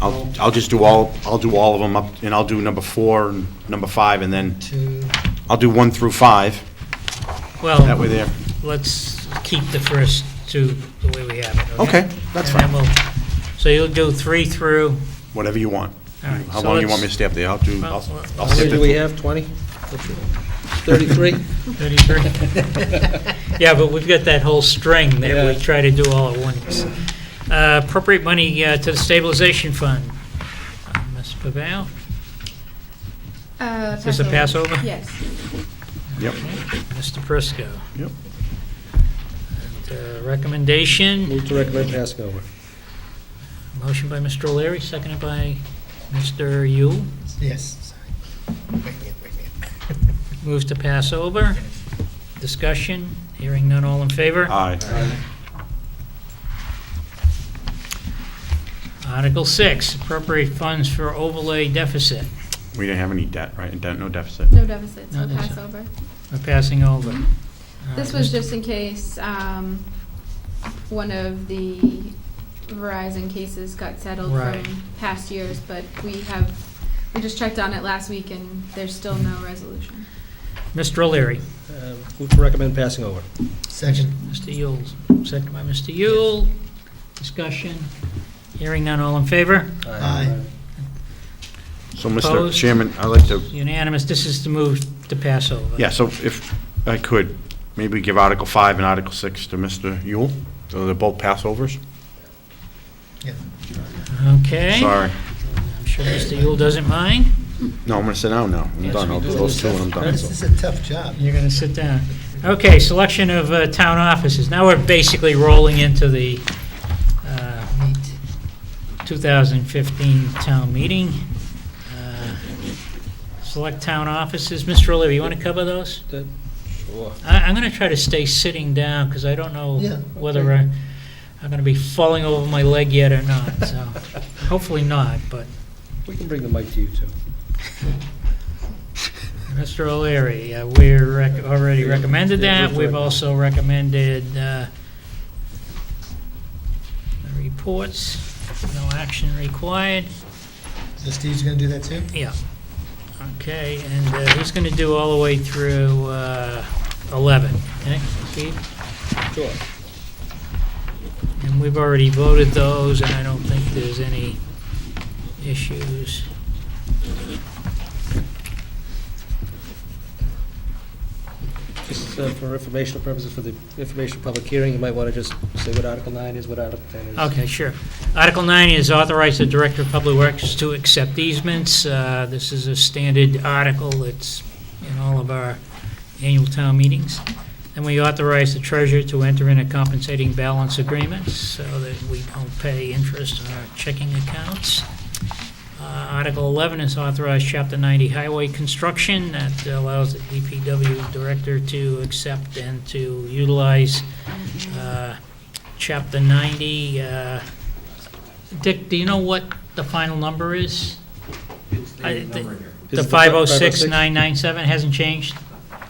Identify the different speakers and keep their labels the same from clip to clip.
Speaker 1: I'll, I'll just do all, I'll do all of them up, and I'll do number four and number five, and then
Speaker 2: to,
Speaker 1: I'll do one through five, that way
Speaker 3: Well,
Speaker 1: there.
Speaker 3: let's keep the first two the way we have it, okay?
Speaker 1: Okay, that's
Speaker 3: And
Speaker 1: fine,
Speaker 3: then we'll, so you'll do three through,
Speaker 1: whatever you want.
Speaker 3: all right.
Speaker 1: How
Speaker 3: so
Speaker 1: long you
Speaker 3: let's-
Speaker 1: want me to stay up there? I'll do, I'll
Speaker 3: Well,
Speaker 1: I'll
Speaker 2: how many
Speaker 1: stay
Speaker 2: do we
Speaker 1: there.
Speaker 2: have, 20? 33?
Speaker 3: 33? Yeah, but we've got that whole string that we
Speaker 2: Yeah.
Speaker 3: try to do all at once. Uh, Appropriate money uh, to the stabilization fund. Uh, Ms. Pavel?
Speaker 4: Uh,
Speaker 3: Is this a Passover?
Speaker 4: Yes.
Speaker 1: Yep,
Speaker 3: Mr. Prisco?
Speaker 1: yep.
Speaker 3: And, uh, Recommendation,
Speaker 2: Move to recommend passing over.
Speaker 3: motion by Mr. O'Leary, seconded by Mr. Yule.
Speaker 5: Yes. sorry. Wait a minute, wait a minute.
Speaker 3: Moves to pass over. Discussion, hearing none, all in favor?
Speaker 1: Aye.
Speaker 3: Article 6, appropriate funds for overlay deficit.
Speaker 1: We didn't have any debt, right? Debt, no deficit.
Speaker 4: No deficits,
Speaker 3: No
Speaker 4: no
Speaker 3: deficit.
Speaker 4: Passover.
Speaker 3: We're passing over. Uh,
Speaker 4: This was just in case um, one of the Verizon cases got settled
Speaker 3: Right.
Speaker 4: from past years, but we have, we just checked on it last week and there's still no resolution.
Speaker 3: Mr. O'Leary.
Speaker 2: Uh, Move to recommend passing over.
Speaker 5: Second,
Speaker 3: Mr. Yule, second by Mr. Yule. Discussion, hearing none, all in favor?
Speaker 5: Aye.
Speaker 1: So, Mr.
Speaker 3: Opposed?
Speaker 1: Chairman, I'd like to,
Speaker 3: Unanimous, this is the move to pass over.
Speaker 1: yeah, so if I could, maybe give Article five and Article six to Mr. Yule, so they're both passovers?
Speaker 5: yeah.
Speaker 3: Okay.
Speaker 1: Sorry.
Speaker 3: I'm sure Mr. Yule doesn't mind.
Speaker 1: No, I'm gonna sit down now. I'm
Speaker 3: Yes,
Speaker 1: done.
Speaker 3: we
Speaker 1: I'll do
Speaker 3: do.
Speaker 1: those two and I'm done.
Speaker 5: This is a tough job.
Speaker 3: You're going to sit down. Okay, selection of uh, town offices. Now we're basically rolling into the uh, 2015 town meeting. Uh, Select town offices. Mr. O'Leary, you want to cover those?
Speaker 2: That- Sure.
Speaker 3: I- I'm going to try to stay sitting down because I don't know
Speaker 5: Yeah,
Speaker 3: whether
Speaker 5: okay.
Speaker 3: I- I'm going to be falling over my leg yet or not, so hopefully not, but
Speaker 2: We can bring the mic to you, too.
Speaker 3: Mr. O'Leary, uh, we're rec- already recommended that, we've also recommended uh, the reports, no action required,
Speaker 5: So Steve's gonna do that too?
Speaker 3: yeah. Okay, and uh, he's going to do all the way through uh, 11, okay, Steve?
Speaker 2: Sure.
Speaker 3: And we've already voted those, and I don't think there's any issues.
Speaker 2: Just uh, for informational purposes, for the information public hearing, you might want to just say what Article 9 is, what Article 10 is.
Speaker 3: Okay, sure. Article 9 is authorize the Director of Public Works to accept easements. Uh, This is a standard article that's in all of our annual town meetings. And we authorize the treasurer to enter in a compensating balance agreement so that we don't pay interest on our checking accounts. Uh, Article 11 is authorize Chapter 90 highway construction. That allows the DPW Director to accept and to utilize uh, Chapter 90. uh, Dick, do you know what the final number is? It's the
Speaker 2: Is
Speaker 3: The
Speaker 2: it oh the
Speaker 3: 506,997 hasn't changed?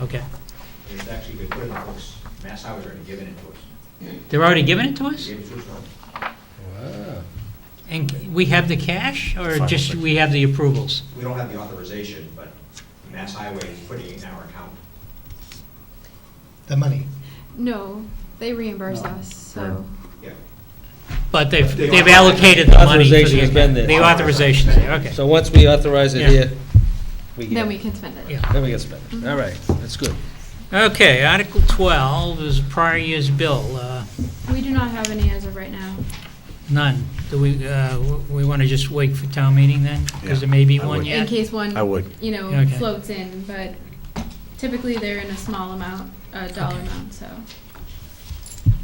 Speaker 3: Okay.
Speaker 6: It's actually been put in the books, Mass Highway's already given it to us.
Speaker 3: They're already giving it to us?
Speaker 6: They gave it to us all.
Speaker 2: Wow.
Speaker 3: And we have the cash, or
Speaker 2: oh
Speaker 3: just we have the approvals?
Speaker 6: We don't have the authorization, but Mass Highway is putting it in our account.
Speaker 5: The money.
Speaker 4: No, they reimburse us, so.
Speaker 6: Yeah.
Speaker 3: But they've
Speaker 6: The
Speaker 3: they've allocated the money for the...
Speaker 2: authorization has been there.
Speaker 3: The authorization's there, okay.
Speaker 2: So once we authorize
Speaker 3: Yeah.
Speaker 2: it here, we get
Speaker 4: Then we
Speaker 2: it.
Speaker 4: can Mm-hmm. spend it.
Speaker 3: Yeah.
Speaker 2: Then we can spend it. All right, that's good.
Speaker 3: Okay, Article 12 is prior year's bill. uh,
Speaker 4: We do not have any as of right now.
Speaker 3: None. Do we, uh, we want to just wait for town meeting then? Because there may be
Speaker 1: Yeah, I
Speaker 3: one
Speaker 1: would.
Speaker 3: yet?
Speaker 4: In case one.
Speaker 1: I would.
Speaker 4: You know,
Speaker 3: Okay.
Speaker 4: floats in, but typically they're in a small amount, a dollar
Speaker 3: Okay.
Speaker 4: amount, so.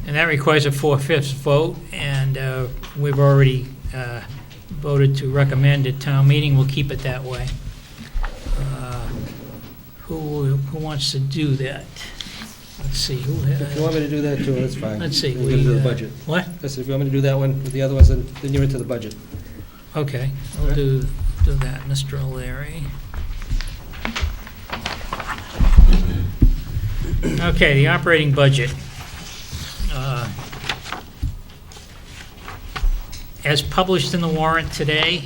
Speaker 3: And that requires a four-fifths vote, and uh, we've already uh, voted to recommend at town meeting, we'll keep it that way. Uh, Who, who wants to do that? Let's see, who,
Speaker 2: If you
Speaker 3: uh,
Speaker 2: want me to do that, too, that's fine.
Speaker 3: let's see.
Speaker 2: We'll get into
Speaker 3: we,
Speaker 2: the
Speaker 3: uh,
Speaker 2: budget.
Speaker 3: What?
Speaker 2: I said, if you want me to do that one with the other ones, then then you're into the budget.
Speaker 3: Okay, we'll do, do that, Mr. O'Leary. Okay, the operating budget. Uh, as published in the warrant today,